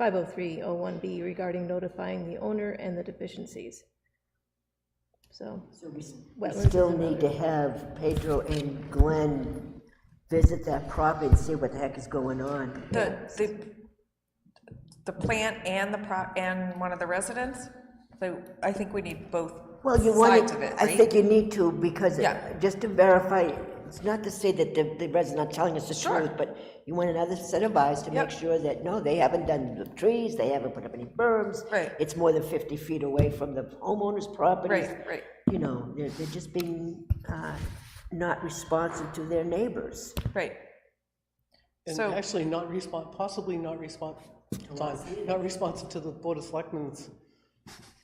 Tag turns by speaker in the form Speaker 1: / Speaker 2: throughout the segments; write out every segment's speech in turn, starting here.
Speaker 1: 50301B regarding notifying the owner and the deficiencies. So,
Speaker 2: So we s-
Speaker 1: wetlands
Speaker 2: we
Speaker 1: is
Speaker 2: still need to have Pedro and Glenn visit that property and see what the heck is going on.
Speaker 3: The, the, the plant and the pro, and one of the residents, so I think we need both
Speaker 2: Well, you want
Speaker 3: sides of
Speaker 2: to,
Speaker 3: it,
Speaker 2: I
Speaker 3: right?
Speaker 2: think you need to, because,
Speaker 3: Yeah.
Speaker 2: just to verify, it's not to say that the, the resident's not telling us the
Speaker 3: Sure.
Speaker 2: truth, but you want another set of eyes to make
Speaker 3: Yep.
Speaker 2: sure that, no, they haven't done the trees, they haven't put up any berms.
Speaker 3: Right.
Speaker 2: It's more than fifty feet away from the homeowner's property.
Speaker 3: Right, right.
Speaker 2: You know, they're, they're just being, uh, not responsive to their neighbors.
Speaker 3: Right,
Speaker 4: And
Speaker 3: So-
Speaker 4: actually not respond, possibly not respond, not responsive to the Board of Selectmen's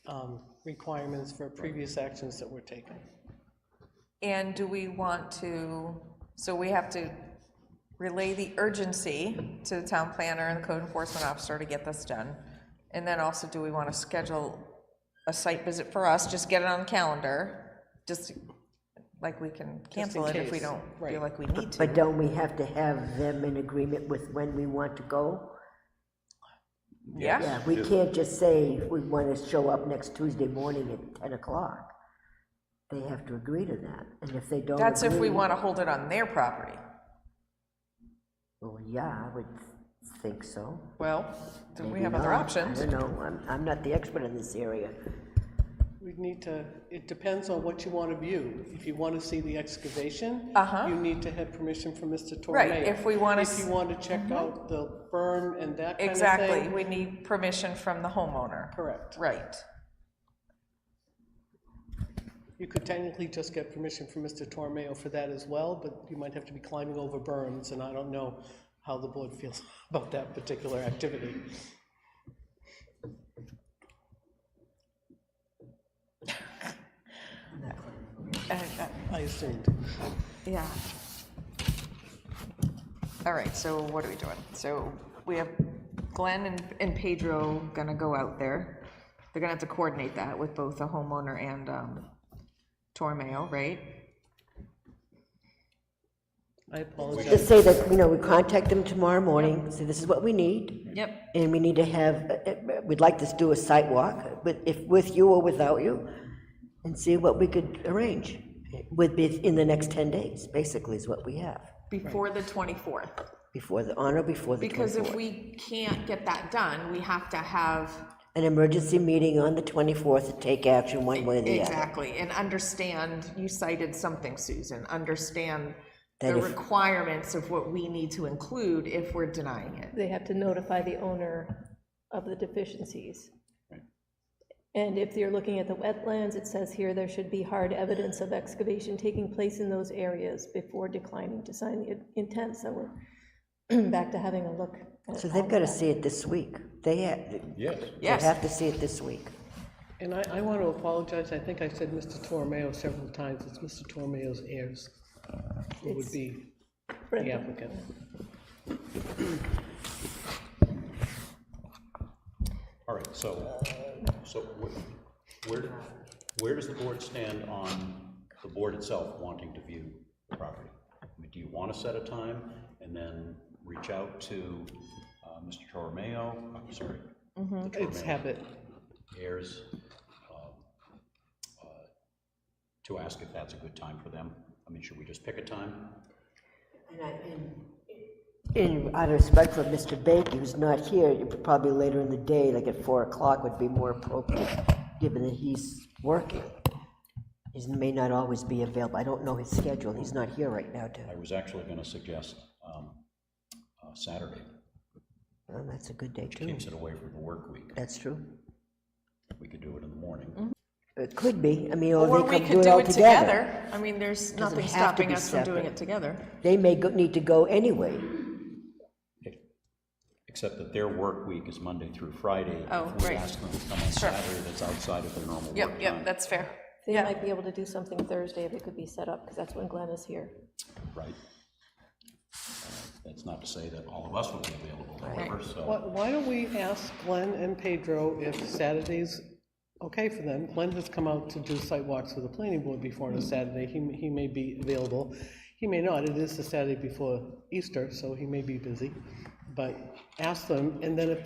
Speaker 4: um, requirements for previous actions that were taken.
Speaker 3: and do we want to, so we have to relay the urgency to the town planner and the code enforcement officer to get this done? And then also, do we want to schedule a site visit for us, just get it on the calendar, just like we can cancel it if we
Speaker 4: case,
Speaker 3: don't feel
Speaker 4: right.
Speaker 3: like we need to?
Speaker 2: But don't we have to have them in agreement with when we want to go?
Speaker 3: Yeah,
Speaker 2: Yeah, we can't just say we want to show up next Tuesday morning at ten o'clock. They have to agree to that, and if they don't
Speaker 3: that's if we
Speaker 2: agree-
Speaker 3: want to hold it on their property.
Speaker 2: Well, yeah, I would think so.
Speaker 3: Well, then we
Speaker 2: Maybe
Speaker 3: have other
Speaker 2: not.
Speaker 3: options.
Speaker 2: I don't know, I'm, I'm not the expert in this area.
Speaker 4: We need to, it depends on what you want to view. If you want to see the excavation,
Speaker 3: Uh-huh.
Speaker 4: you need to have permission from Mr. Torre.
Speaker 3: Right, if we wanna
Speaker 4: If you
Speaker 3: s- Mm-hmm.
Speaker 4: want to check out the berm and that kind of thing.
Speaker 3: Exactly, we need permission from the homeowner.
Speaker 4: Correct.
Speaker 3: Right,
Speaker 4: You could technically just get permission from Mr. Tormeo for that as well, but you might have to be climbing over berms, and I don't know how the board feels about that particular activity. I assumed.
Speaker 3: yeah. All right, so what are we doing? So we have Glenn and, and Pedro gonna go out there. They're gonna have to coordinate that with both the homeowner and, um, Tormeo, right?
Speaker 4: I apologize.
Speaker 2: Just say that, you know, we contact them tomorrow morning, say this is what we need,
Speaker 3: Yep.
Speaker 2: and we need to have, uh, uh, we'd like to do a site walk, with, if, with you or without you, and see what we could arrange, would be in the next ten days, basically is what we have.
Speaker 5: before the 24th.
Speaker 2: Before the, on or before the
Speaker 5: Because if
Speaker 2: 24th.
Speaker 5: we can't get that done, we have to have,
Speaker 2: An emergency meeting on the 24th to take action one way or the other.
Speaker 5: exactly, and understand, you cited something, Susan, understand the
Speaker 2: That if-
Speaker 5: requirements of what we need to include if we're denying it.
Speaker 1: they have to notify the owner of the deficiencies. And if you're looking at the wetlands, it says here there should be hard evidence of excavation taking place in those areas before declining to sign the intent, so we're back to having a look. at
Speaker 2: So they've got to see it this week. They have,
Speaker 6: Yes.
Speaker 2: they have to see it this week.
Speaker 4: And I, I want to apologize, I think I said Mr. Tormeo several times, it's Mr. Tormeo's heirs who would be the
Speaker 1: Brenda.
Speaker 4: applicant.
Speaker 6: All right, so, so wh- where, where does the board stand on the board itself wanting to view the property? I mean, Do you want to set a time and then reach out to uh, Mr. Toromeo, I'm sorry,
Speaker 4: It's habit.
Speaker 6: heirs, um, uh, to ask if that's a good time for them? I mean, should we just pick a time?
Speaker 2: In, out of respect for Mr. Baker, who's not here, it probably later in the day, like at 4 o'clock would be more appropriate, given that he's working. He may not always be available. I don't know his schedule. He's not here right now, too.
Speaker 6: I was actually going to suggest um, uh, Saturday,
Speaker 2: Well, that's a good day, too.
Speaker 6: keeps it away from the work week.
Speaker 2: That's true.
Speaker 6: We could do it in the morning.
Speaker 2: It could be. I mean, or they
Speaker 3: Or we
Speaker 2: could
Speaker 3: could
Speaker 2: do it
Speaker 3: do
Speaker 2: all
Speaker 3: it
Speaker 2: together.
Speaker 3: together. I mean, there's
Speaker 2: Doesn't
Speaker 3: nothing
Speaker 2: have to
Speaker 3: stopping
Speaker 2: be
Speaker 3: us from doing
Speaker 2: separate.
Speaker 3: it together.
Speaker 2: They may go, need to go anyway.
Speaker 6: Except that their work week is Monday through Friday.
Speaker 3: Oh,
Speaker 6: If we
Speaker 3: right.
Speaker 6: ask them to come on Saturday, that's outside of their normal work time.
Speaker 3: Yep, yep, that's fair.
Speaker 1: They might be able to do something Thursday if it could be set up, because that's when Glenn is here.
Speaker 6: Right. Uh, That's not to say that all of us will be available, however,
Speaker 4: Why,
Speaker 6: so.
Speaker 4: why don't we ask Glenn and Pedro if Saturday's okay for them? Glenn has come out to do site walks with the planning board before on a Saturday, he, m- he may be available, he may not, it is the Saturday before Easter, so he may be busy, but ask them, and then if they